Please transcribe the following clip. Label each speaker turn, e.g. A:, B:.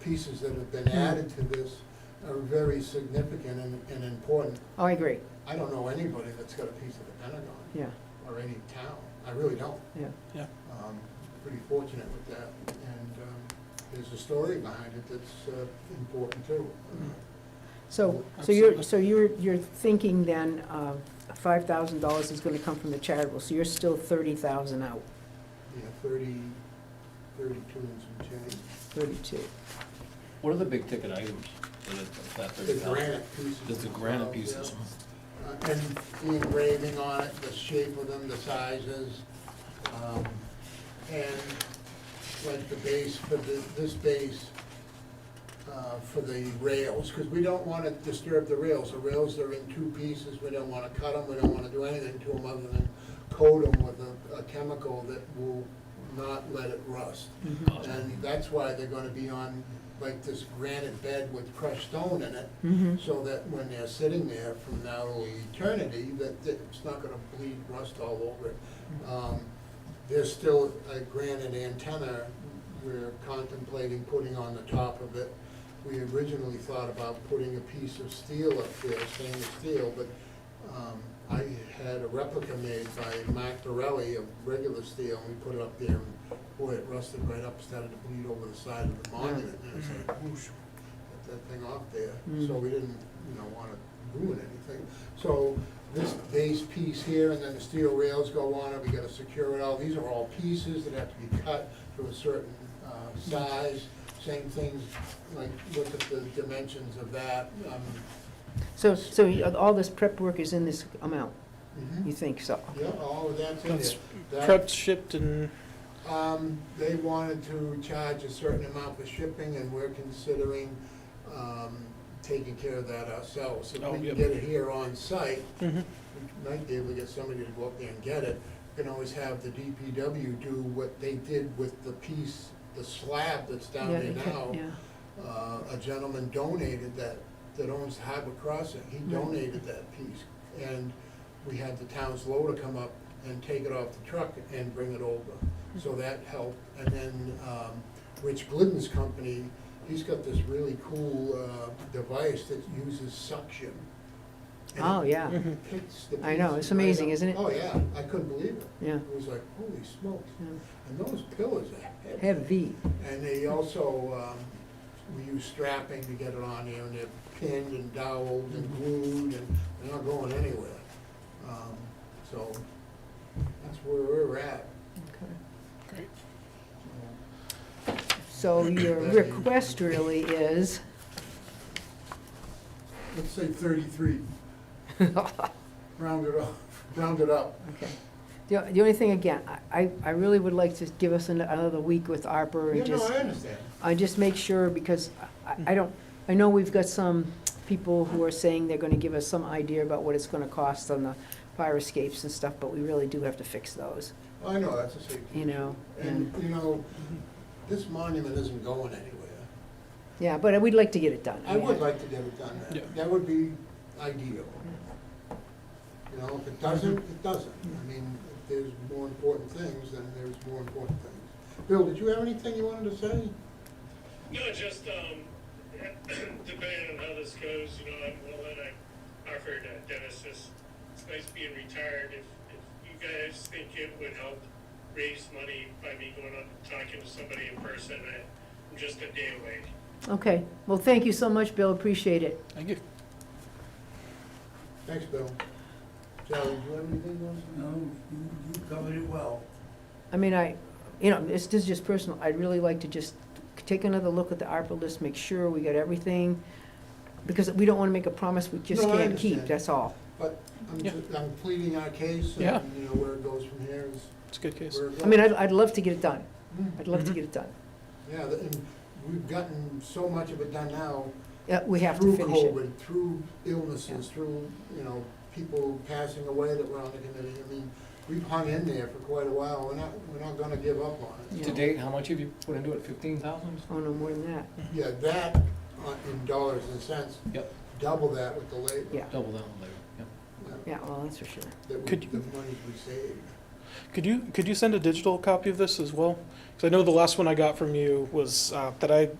A: pieces that have been added to this are very significant and, and important.
B: Oh, I agree,
A: I don't know anybody that's got a piece of the Pentagon
B: yeah,
A: or any town. I really don't.
B: yeah.
C: Yeah.
A: Um, Pretty fortunate with that. And um, there's a story behind it that's uh, important too. Uh,
B: So, so you're,
C: Absolutely.
B: so you're, you're thinking then, uh, five thousand dollars is gonna come from the charitable, so you're still thirty thousand out,
A: Yeah, thirty, thirty-two and some change.
B: thirty-two.
D: What are the big ticket items that is- of that
A: The
D: thirty thousand?
A: granite pieces.
D: There's the granite pieces.
A: themselves, yeah. Uh, And the engraving on it, the shape of them, the sizes, um, and like the base for the, this base, uh, for the rails, because we don't want to disturb the rails. The rails are in two pieces, we don't want to cut them, we don't want to do anything to them other than coat them with a, a chemical that will not let it rust.
B: Mm-hmm.
A: And that's why they're gonna be on like this granite bed with crushed stone in it,
B: Mm-hmm.
A: so that when they're sitting there from now to eternity, that that it's not gonna bleed rust all over it. Um, There's still a granite antenna we're contemplating putting on the top of it. We originally thought about putting a piece of steel up there, stainless steel, but um, I had a replica made by Mark Dorelli of regular steel, and we put it up there, and boy, it rusted right up, started to bleed over the side of the monument,
C: Mm-hmm.
A: and it's like whoosh, get that thing off there,
C: Hmm.
A: so
B: Mm.
A: we didn't, you know, wanna ruin anything. So this base piece here, and then the steel rails go on it, we gotta secure it all, these are all pieces that have to be cut to a certain uh, size, same things, like, look at the dimensions of that, um,
B: So, so you- all this prep work is in this amount, you think so?
A: Yeah, all of that's in
C: Mm-hmm. That's
A: there. That-
C: prepped, shipped, and
A: Um, they wanted to charge a certain amount for shipping, and we're considering, um, taking care of that ourselves. If
C: Oh,
A: we
C: yep.
A: can get it here on site,
C: Mhm.
A: we might be able to get somebody to go up there and get it. We Can always have the DPW do what they did with the piece, the slab that's down
B: Yeah,
A: there
B: you can-
A: now.
B: yeah.
A: Uh, a gentleman donated that, that owns Harbor Crossing, he
B: Right.
A: donated that piece. And we had the town's loader come up and take it off the truck and bring it over, so
B: Mm-hmm.
A: that helped. And then, um, Rich Glidden's company, he's got this really cool, uh, device that uses suction. And
B: Oh, yeah,
C: Mhm.
A: it Picks the
B: I know,
A: pieces
B: it's amazing,
A: right up.
B: isn't it?
A: Oh, yeah, I couldn't believe it.
B: yeah.
A: It was like, holy smokes,
B: yeah.
A: and those pillars are heavy.
B: Heavy,
A: And they also, um, we use strapping to get it on there, and they're pinned and doweled and glued, and they're not going anywhere. Um, So that's where we're at.
B: okay.
C: Great.
B: So your request really is,
A: Let's say thirty-three,
B: okay.
A: round it up, round it up.
B: The, the only thing, again, I, I really would like to give us an- another week with ARPA
A: Yeah,
B: and
A: no,
B: just.
A: I understand.
B: I just make sure, because I, I don't, I know we've got some people who are saying they're gonna give us some idea about what it's gonna cost on the fire escapes and stuff, but we really do have to fix those,
A: I know, that's a safety.
B: you know?
A: And,
B: And,
A: you know, this monument isn't going anywhere.
B: yeah, but we'd like to get it done.
A: I would like to get it done.
C: Yeah.
A: That would be ideal. You know, if it doesn't, it doesn't. I mean, if there's more important things, then there's more important things. Bill, did you have anything you wanted to say?
E: No, just, um, depending on how this goes, you know, I'm willing, I offered uh, Dennis this space being retired, if, if you guys think it would help raise money by me going up and talking to somebody in person, I- I'm just a day away.
B: Okay, well, thank you so much, Bill, appreciate it.
C: thank you.
A: Thanks, Bill. Charlie, did you have anything you wanted to say?
F: No, you, you covered it well.
B: I mean, I, you know, this, this is just personal, I'd really like to just take another look at the ARPA list, make sure we got everything, because we don't wanna make a promise we just
A: No, I
B: can't keep,
A: understand.
B: that's all.
A: But I'm,
C: Yeah.
A: ju- I'm pleading our case
C: Yeah.
A: and, you know, where it goes from here is
C: It's a good case.
A: where it goes.
B: I mean, I'd, I'd love to get it done,
A: Mm.
B: I'd love to
C: Mhm.
B: get it done.
A: Yeah, the- and we've gotten so much of it done now.
B: Yeah, we have to finish
A: Through
B: it.
A: COVID, through illnesses, through, you know, people passing away that were on the committee. I mean, we've hung in there for quite a while. We're not, we're not gonna give up on it.
D: To date, how much have you put into it, fifteen thousand?
B: Oh, no, more than that,
A: Yeah, that uh, in dollars and cents,
D: Yep,
A: double that with the labor.
B: yeah,
D: double that one later, yep.
B: yeah, well, that's for sure.
A: That we,
C: Could you-
A: the money we saved.
C: Could you could you send a digital copy of this as well? Because I know the last one I got from you was uh, that I